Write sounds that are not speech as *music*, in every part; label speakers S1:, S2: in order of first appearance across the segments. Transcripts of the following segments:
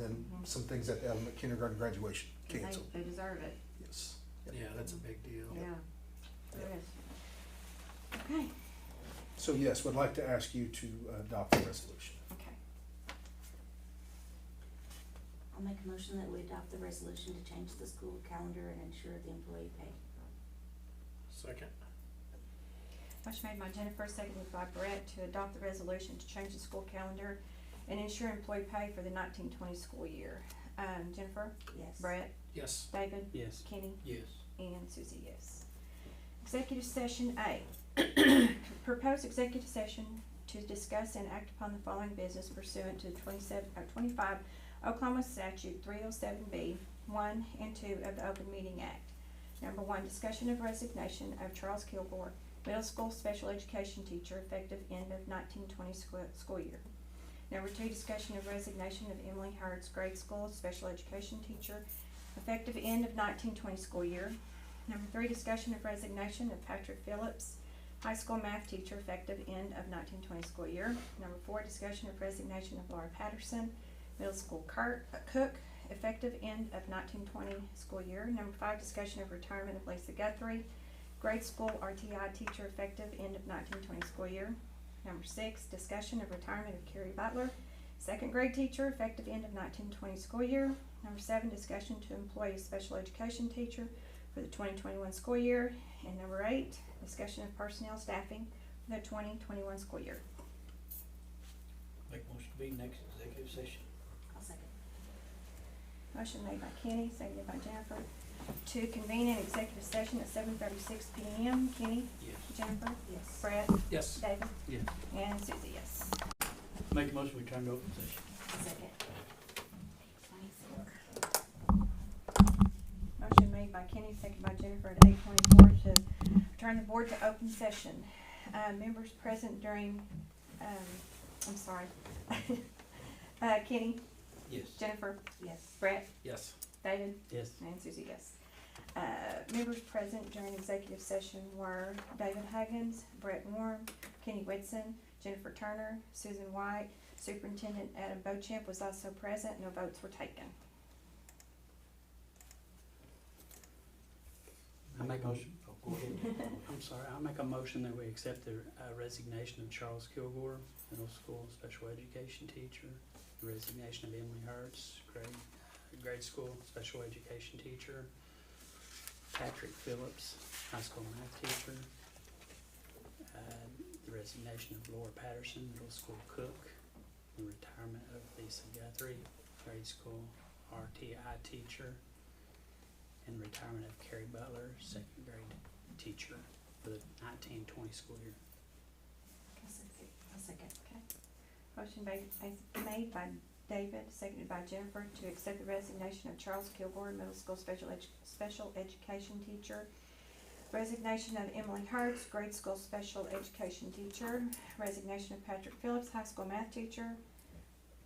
S1: and some things at the element kindergarten graduation
S2: They,
S1: canceled,
S2: they deserve it,
S1: yes.
S3: Yeah, that's a big deal.
S2: yeah. There
S1: Yeah.
S2: is. Okay,
S1: So yes, would like to ask you to adopt the resolution.
S2: okay.
S4: I'll make a motion that we adopt the resolution to change the school calendar and ensure the employee pay.
S3: Second,
S2: Motion made by Jennifer, seconded by Brett to adopt the resolution to change the school calendar and ensure employee pay for the nineteen twenty school year. Um, Jennifer,
S4: Yes.
S2: Brett,
S3: yes.
S2: David,
S5: Yes.
S2: Kenny,
S3: Yes.
S2: and Susie, yes. Executive session A. *coughs* Proposed executive session to discuss and act upon the following business pursuant to twenty-seven, uh, twenty-five Oklahoma statute three oh seven B, one and two of the Open Meeting Act. Number one, discussion of resignation of Charles Kilgore, middle school special education teacher effective end of nineteen twenty school, school year. Number two, discussion of resignation of Emily Howard's grade school special education teacher effective end of nineteen twenty school year. Number three, discussion of resignation of Patrick Phillips, high school math teacher effective end of nineteen twenty school year. Number four, discussion of resignation of Laura Patterson, middle school cart, uh, cook, effective end of nineteen twenty school year. Number five, discussion of retirement of Lisa Guthrie, grade school RTI teacher effective end of nineteen twenty school year. Number six, discussion of retirement of Carrie Butler, second grade teacher effective end of nineteen twenty school year. Number seven, discussion to employ a special education teacher for the twenty twenty-one school year. And number eight, discussion of personnel staffing for the twenty twenty-one school year.
S5: Make motion to be next executive session.
S4: I'll second.
S2: Motion made by Kenny, seconded by Jennifer, to convene an executive session at seven thirty-six P M. Kenny,
S5: Yes.
S2: Jennifer,
S4: Yes.
S2: Brett,
S3: Yes.
S2: David,
S5: Yes.
S2: and Susie, yes.
S5: Make a motion, we turn to open session.
S4: Second.
S2: Motion made by Kenny, seconded by Jennifer at eight twenty-four to return the board to open session. Uh, members present during, um, I'm sorry. *laughs* Uh, Kenny,
S5: Yes.
S2: Jennifer,
S4: Yes.
S2: Brett,
S3: Yes.
S2: David,
S5: Yes.
S2: and Susie, yes. Uh, members present during executive session were David Huggins, Brett Warren, Kenny Whitson, Jennifer Turner, Susan White, Superintendent Adam Bochamp was also present, no votes were taken.
S5: I make a motion. Oh, go *laughs* ahead. I'm sorry, I make a motion that we accept the uh, resignation of Charles Kilgore, middle school special education teacher, the resignation of Emily Hertz, grade, grade school special education teacher, Patrick Phillips, high school math teacher, uh, the resignation of Laura Patterson, middle school cook, the retirement of Lisa Guthrie, grade school RTI teacher, and retirement of Carrie Butler, second grade teacher for the nineteen twenty school year.
S4: I'll second. I'll second.
S2: Motion made, made by David, seconded by Jennifer, to accept the resignation of Charles Kilgore, middle school special edu- special education teacher. Resignation of Emily Hertz, grade school special education teacher. Resignation of Patrick Phillips, high school math teacher.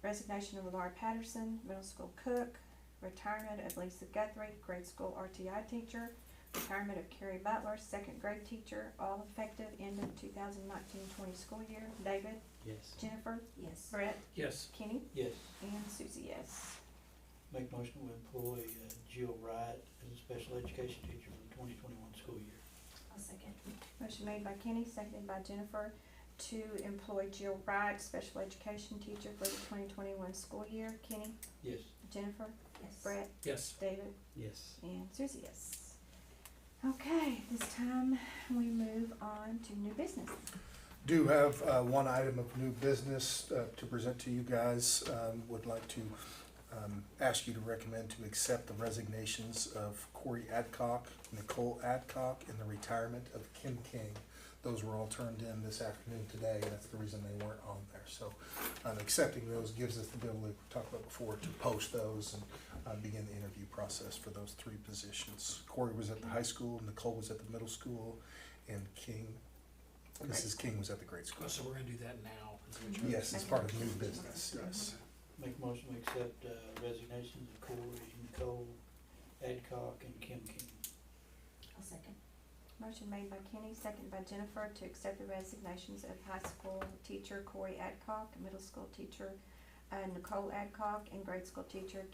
S2: Resignation of Laura Patterson, middle school cook. Retirement of Lisa Guthrie, grade school RTI teacher. Retirement of Carrie Butler, second grade teacher, all effective end of 2019-20 school year. David,
S5: Yes.
S2: Jennifer,
S4: Yes.
S2: Brett,
S3: Yes.
S2: Kenny,
S6: Yes,
S2: and Susie, yes.
S6: make motion to employ uh, Jill Wright as a special education teacher for the twenty twenty-one school year.
S4: I'll second.
S2: Motion made by Kenny, seconded by Jennifer, to employ Jill Wright, special education teacher for the twenty twenty-one school year. Kenny,
S6: Yes,
S2: Jennifer,
S4: Yes.
S2: Brett,
S3: Yes.
S2: David,
S5: Yes.
S2: and Susie, yes. Okay, this time we move on to new business.
S1: Do have uh, one item of new business uh, to present to you guys. Um, Would like to um, ask you to recommend to accept the resignations of Corey Adcock, Nicole Adcock, and the retirement of Kim King. Those were all turned in this afternoon today, and that's the reason they weren't on there. So um, accepting those gives us the ability, we talked about before, to post those and uh, begin the interview process for those three positions. Corey was at the high school, Nicole was at the middle school, and King Mrs. King was at the grade school.
S3: So we're gonna do that now. is what you're-
S1: Yes, it's part of new business, yes.
S6: make motion to accept uh, resignations of Corey, Nicole, Adcock, and Kim King.
S4: I'll second.
S2: Motion made by Kenny, seconded by Jennifer, to accept the resignations of high school teacher Corey Adcock, middle school teacher uh, Nicole Adcock, and grade school teacher